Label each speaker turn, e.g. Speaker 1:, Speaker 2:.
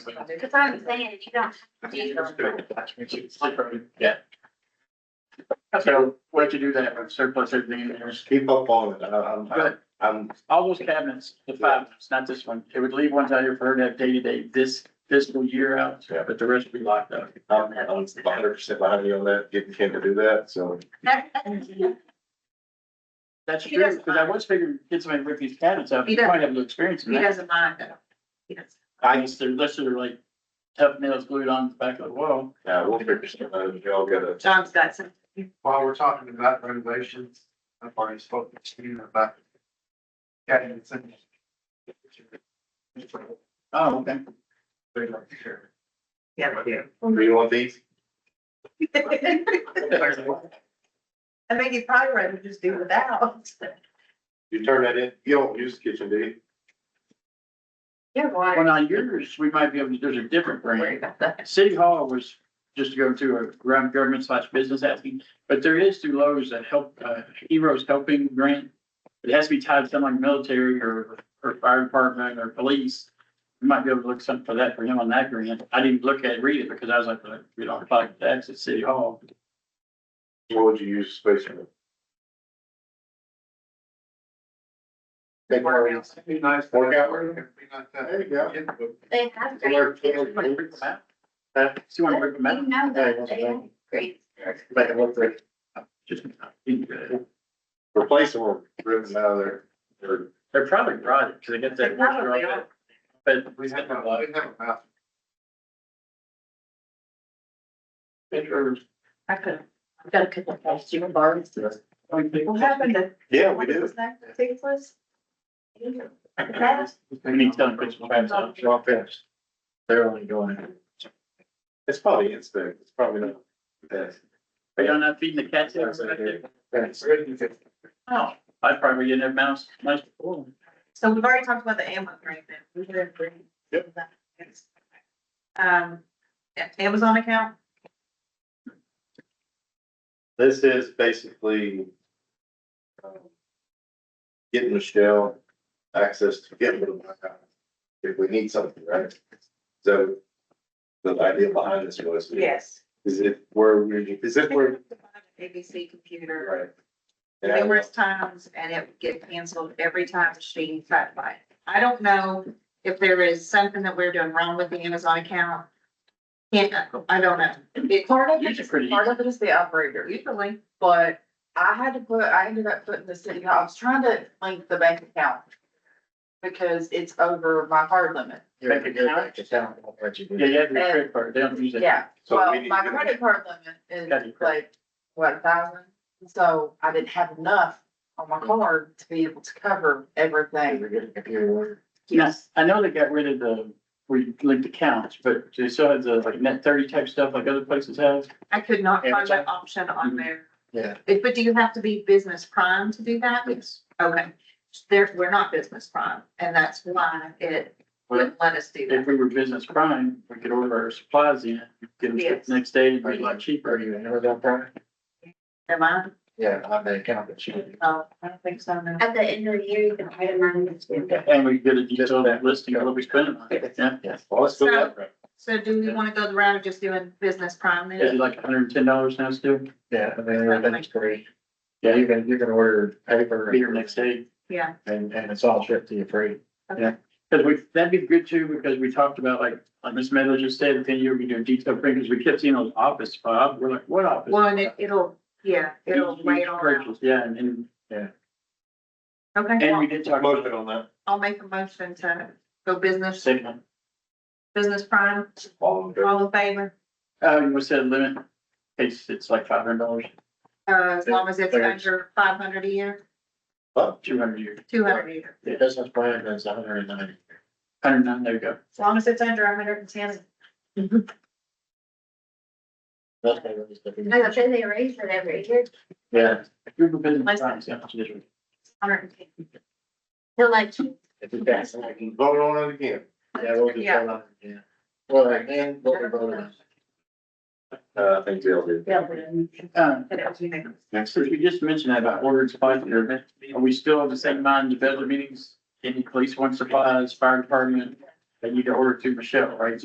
Speaker 1: Because I'm saying, if you don't.
Speaker 2: Yeah. So where'd you do that, with surplus everything in there?
Speaker 3: Keep up on it. I- I'm,
Speaker 2: Good.
Speaker 3: I'm,
Speaker 2: All those cabinets, the five, ones, not this one, it would leave ones out here for her to have day to day this fiscal year out,
Speaker 3: Yeah.
Speaker 2: but the rest would be locked up.
Speaker 3: I'm, I'm hundred percent behind you on that, getting Ken to do that, so.
Speaker 2: That's
Speaker 1: He
Speaker 2: true,
Speaker 1: doesn't
Speaker 2: because I
Speaker 1: mind.
Speaker 2: was figuring, get somebody to rip these cabinets out,
Speaker 1: He
Speaker 2: you
Speaker 1: doesn't-
Speaker 2: might have a little experience in
Speaker 1: He
Speaker 2: that.
Speaker 1: doesn't mind though. He doesn't.
Speaker 3: I,
Speaker 2: Unless they're, unless they're like tough nails glued on the back of the wall.
Speaker 3: yeah, we'll figure something out. if Y'all got a.
Speaker 1: John's got some.
Speaker 4: While we're talking about renovations, I've already spoken to you about. Getting it in.
Speaker 2: Oh, okay.
Speaker 1: Yeah.
Speaker 3: Do you want these?
Speaker 1: I think he'd probably rather just do without.
Speaker 3: You turn that in. You don't use the kitchen, do you?
Speaker 1: Yeah,
Speaker 2: Well,
Speaker 1: why?
Speaker 2: now yours, we might be able to, there's a different
Speaker 1: Don't
Speaker 2: brand.
Speaker 1: worry about that.
Speaker 2: City Hall was just to go to a ground government slash business asking, but there is through Lowe's that help, uh, Heroes Helping Grant. It has to be tied to something like military or, or fire department or police. You might be able to look something for that for him on that grant. I didn't look at, it, read it because I was like, "Well, we don't apply to tax at City Hall.
Speaker 3: What would you use space for? Big workouts.
Speaker 4: Be nice.
Speaker 3: Workout room?
Speaker 4: Be like that.
Speaker 3: There you go.
Speaker 1: They have
Speaker 3: So we're-
Speaker 1: great.
Speaker 3: we're-
Speaker 2: Do you want to break them
Speaker 1: You
Speaker 2: out?
Speaker 1: know that they have great.
Speaker 3: Make it look like
Speaker 2: Just, uh,
Speaker 3: replace them or rip them out of there. Or-
Speaker 2: They're probably brought it because they get
Speaker 1: They
Speaker 2: that.
Speaker 1: probably are.
Speaker 2: But
Speaker 4: We have, a- we have a bathroom.
Speaker 2: Or-
Speaker 1: I could, I've got a couple of questions, you and Barb. What happened to?
Speaker 3: Yeah, we
Speaker 1: what
Speaker 3: do.
Speaker 1: was that, Takeless?
Speaker 2: I mean, tell them, put some fans on.
Speaker 3: It's all finished.
Speaker 2: They're only going.
Speaker 3: It's probably instinct. It's probably not. that.
Speaker 2: Are y'all not feeding the cats out there? Oh, I probably didn't have mouse, mice before.
Speaker 1: So we've already talked about the ammo grant then. We were in green.
Speaker 3: Yep.
Speaker 1: Um, Amazon account,
Speaker 3: This is basically um, getting Michelle access to get rid of my house if we need something, right? So the idea behind this was,
Speaker 1: yes.
Speaker 3: is it where we, is it where,
Speaker 1: ABC computer,
Speaker 3: right? And I-
Speaker 1: numerous times, and it would get canceled every time she tried to buy it. I don't know if there is something that we're doing wrong with the Amazon account. Can't, I don't know. It-
Speaker 5: Part of
Speaker 2: Yours
Speaker 5: it
Speaker 2: are
Speaker 5: is,
Speaker 2: pretty
Speaker 5: part of it is the operator,
Speaker 1: Usually,
Speaker 5: but I had to put, I ended up putting the city, I was trying to link the bank account. Because it's over my hard limit.
Speaker 2: Bank account? Yeah, you have your credit card, they don't use that.
Speaker 5: Yeah,
Speaker 3: So
Speaker 5: well,
Speaker 3: we need
Speaker 5: my
Speaker 3: to-
Speaker 5: credit card limit
Speaker 2: Got
Speaker 5: is
Speaker 2: it.
Speaker 5: like, what, a thousand? So I didn't have enough on my card to be able to cover everything.
Speaker 2: Yes, I know they got rid of the, where you link the counts, but they still have the like net thirty type stuff like other places have.
Speaker 1: I could not find
Speaker 2: Amazon?
Speaker 1: that option on
Speaker 2: Mhm.
Speaker 1: there.
Speaker 3: Yeah.
Speaker 1: If- But do you have to be business prime to do that?
Speaker 2: Yes.
Speaker 1: Okay, there, we're not business prime, and that's why it wouldn't let us do
Speaker 2: If
Speaker 1: that.
Speaker 2: we were business prime, we could order our supplies in, get them shipped
Speaker 1: Yes.
Speaker 2: the next day, it'd be a lot cheaper.
Speaker 3: you never done that?
Speaker 1: Am I?
Speaker 3: Yeah, I made account that she did.
Speaker 1: No, I don't think so, no.
Speaker 6: At the end of the year, you can itemize it.
Speaker 2: And we get a detailed listing of what we spent on it, yeah.
Speaker 3: Yes. Well, let's go that route.
Speaker 1: So do we wanna go the route of just doing business prime
Speaker 2: Is it
Speaker 1: then?
Speaker 2: like hundred and ten dollars now still?
Speaker 3: Yeah, I mean,
Speaker 1: everything's
Speaker 3: free.
Speaker 2: Yeah, you
Speaker 3: can, you can order paper
Speaker 2: Be here next day.
Speaker 1: Yeah,
Speaker 3: and, and it's all shipped to you free.
Speaker 2: Cause we, that'd be good too, because we talked about like, like Miss Meadows just said, ten year we do detail print, because we kept seeing those office, Bob, we're like, what office?
Speaker 1: well, and it, it'll, yeah, it'll
Speaker 2: Huge
Speaker 1: weigh it all out.
Speaker 2: purchase, Yeah, and, and,
Speaker 1: Okay,
Speaker 2: and we
Speaker 1: well,
Speaker 2: did talk about
Speaker 3: Motion on that.
Speaker 1: I'll make a motion to go business,
Speaker 2: segment,
Speaker 1: business prime,
Speaker 3: All in favor?
Speaker 1: all in favor,
Speaker 2: uh, we said limit, in case it's like five hundred dollars,
Speaker 1: uh, as long as it's
Speaker 3: There's-
Speaker 1: under five hundred a year,
Speaker 2: two hundred a year,
Speaker 1: two hundred a year.
Speaker 3: The business plan is a hundred and ninety.
Speaker 2: hundred and nine, there you go.
Speaker 1: As long as it's under hundred and ten,
Speaker 3: That's what it is.
Speaker 6: No, they say they raise it every year,
Speaker 3: Yeah.
Speaker 2: Group of business.
Speaker 1: Listen.
Speaker 2: clients, yeah, that's different.
Speaker 1: hundred and ten.
Speaker 6: so like,
Speaker 3: If you pass it, I can Vote on it again.
Speaker 1: Yeah, we'll just vote
Speaker 3: on it again. Well, then, what we voted on. Uh, I think they'll do.
Speaker 1: Yeah, but-
Speaker 2: Uh,
Speaker 1: but it's unanimous.
Speaker 2: next, since we just mentioned that about ordering supplies, are we still of the same mind, the budget meetings, any police want supplies, fire department, they need to order to Michelle, right?